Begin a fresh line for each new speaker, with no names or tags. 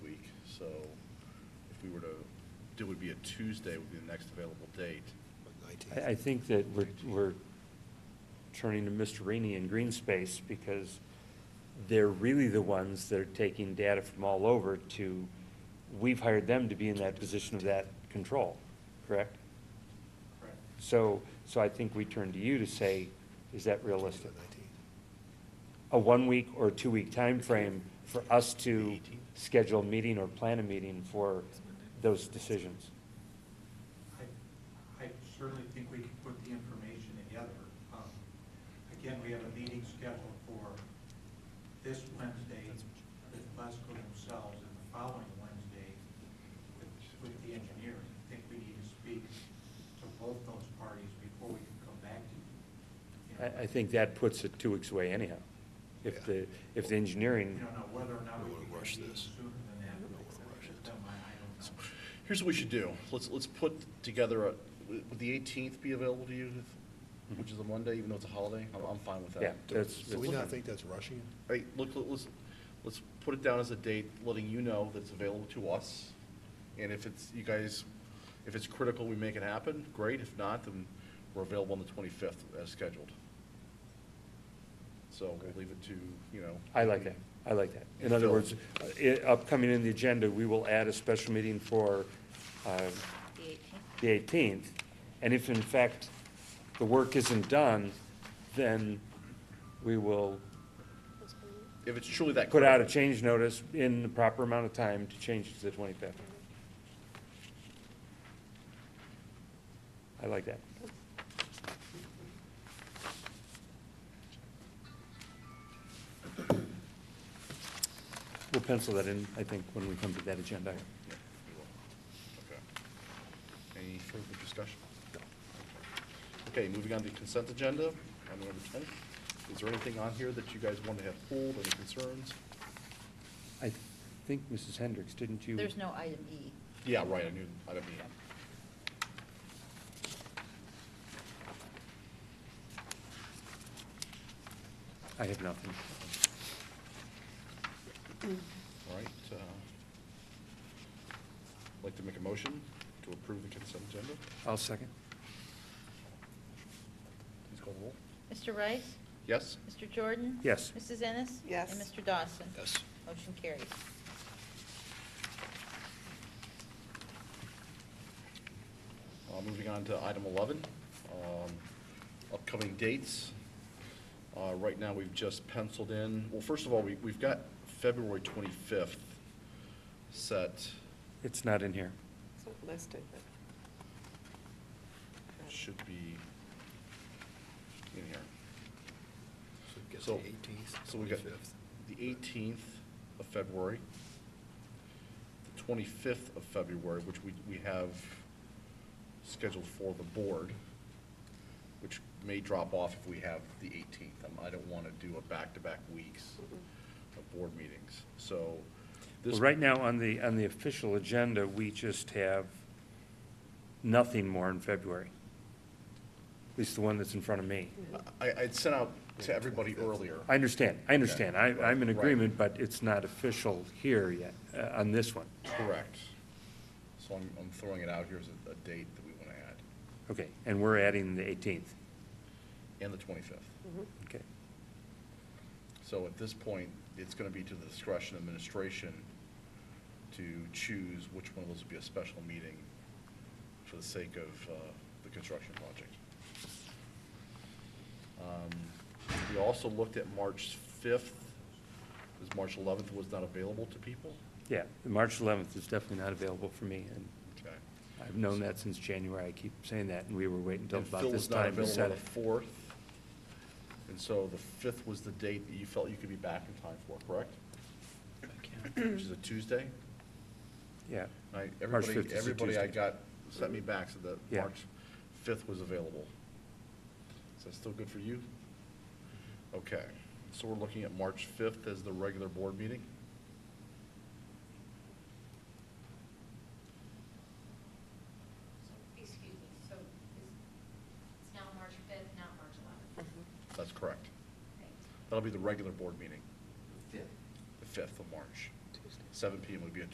if we were to, it would be a Tuesday would be the next available date.
I, I think that we're, we're turning to Mr. Rainey and Green Space because they're really the ones that are taking data from all over to, we've hired them to be in that position of that control, correct?
Correct.
So, so I think we turn to you to say, is that realistic? A one-week or two-week time frame for us to schedule a meeting or plan a meeting for those decisions?
I, I certainly think we can put the information together. Um, Again, we have a meeting scheduled for this Wednesday with Glasgow themselves and the following Wednesday with, with the engineers. I think we need to speak to both those parties before we can come back to you. you. know,
I, I think that puts it two weeks away anyhow. If the, if the
You
engineering,
don't know whether or not
We
we
wanna
can
rush
meet
this.
sooner than that.
We don't wanna rush it.
Then I I don't know.
Here's what we should do. Let's, let's put together, a- would the 18th be available to you, which is a Monday, even though it's a holiday? I'm, I'm fine with that.
Mm-hmm. yeah, that's,
Do we not think that's rushing? it?
All right, look, let's, let's put it down as a date, letting you know that's available to us. And if it's, you guys, if it's critical, we make it happen, great. If not, then we're available on the twenty-fifth as scheduled. So we'll leave it to, you know.
I like that, I like that. In other
Phil.
words, i- upcoming in the agenda, we will add a special meeting for, uh,
The eighteenth?
the eighteenth. And if in fact the work isn't done, then we will
If it's truly that.
put out a
critical.
change notice in the proper amount of time to change it to the twenty-fifth. I like that. We'll pencil that in, I think, when we come to that agenda.
Yeah, we will. Okay. Any further discussion? Okay, moving on to consent agenda, on number ten. Is there anything on here that you guys want to have pulled, any concerns?
I think, Mrs. Hendricks, didn't you?
There's no item E.
Yeah, right, I knew, I didn't mean.
I have nothing.
All right, uh, I'd like to make a motion to approve the consent agenda.
I'll second.
Please call the roll.
Mr. Rice?
Yes?
Mr. Jordan?
Yes.
Mrs. Ennis?
Yes.
And Mr. Dawson?
Yes.
Motion carries.
Uh, Moving on to item 11, um, upcoming dates. Uh, Right now, we've just penciled in, well, first of all, we- we've got February 25th set.
It's not in here.
It's not listed, but.
Should be in here.
So it gets
So-
the 18th,
So we got
25th.
the 18th of February, the 25th of February, which we we have scheduled for the board, which may drop off if we have the 18th. Um, I don't want to do a back-to-back weeks of board meetings, so
Well,
this.
Right now, on the, on the official agenda, we just have nothing more in February. At least the one that's in front of me.
Mm-hmm.
I, I'd sent out to everybody earlier.
I understand, I understand, I,
Okay,
I'm in
right.
agreement, but it's not official here yet, uh, on this one.
Correct. So I'm, I'm throwing it out here as a, a date that we want to add,
Okay, and we're adding the eighteenth,
and the 25th.
Mm-hmm.
okay.
So at this point, it's going to be to the discretion of administration to choose which one of those would be a special meeting for the sake of uh, the construction project. Um, We also looked at March 5th, because March 11th was not available to people.
Yeah, March eleventh is definitely not available for me, and
Okay.
I've known that since January, I keep saying that, and we were waiting until
And Phil
about this
was not
time to
available on
set it.
the 4th. And so the 5th was the date that you felt you could be back in time for, correct? Which is a Tuesday?
Yeah,
I,
March
everybody,
5th is a
everybody I
Tuesday.
got sent me back so that
Yeah.
March fifth was available. Is that still good for you? Okay, so we're looking at March fifth as the regular board meeting?
So, excuse me, so is- it's now March 5th, not March 11th?
Mm-hmm.
That's correct.
Thanks.
That'll be the regular board meeting,
Fifth.
the fifth of March.
Tuesday.
Seven PM would be a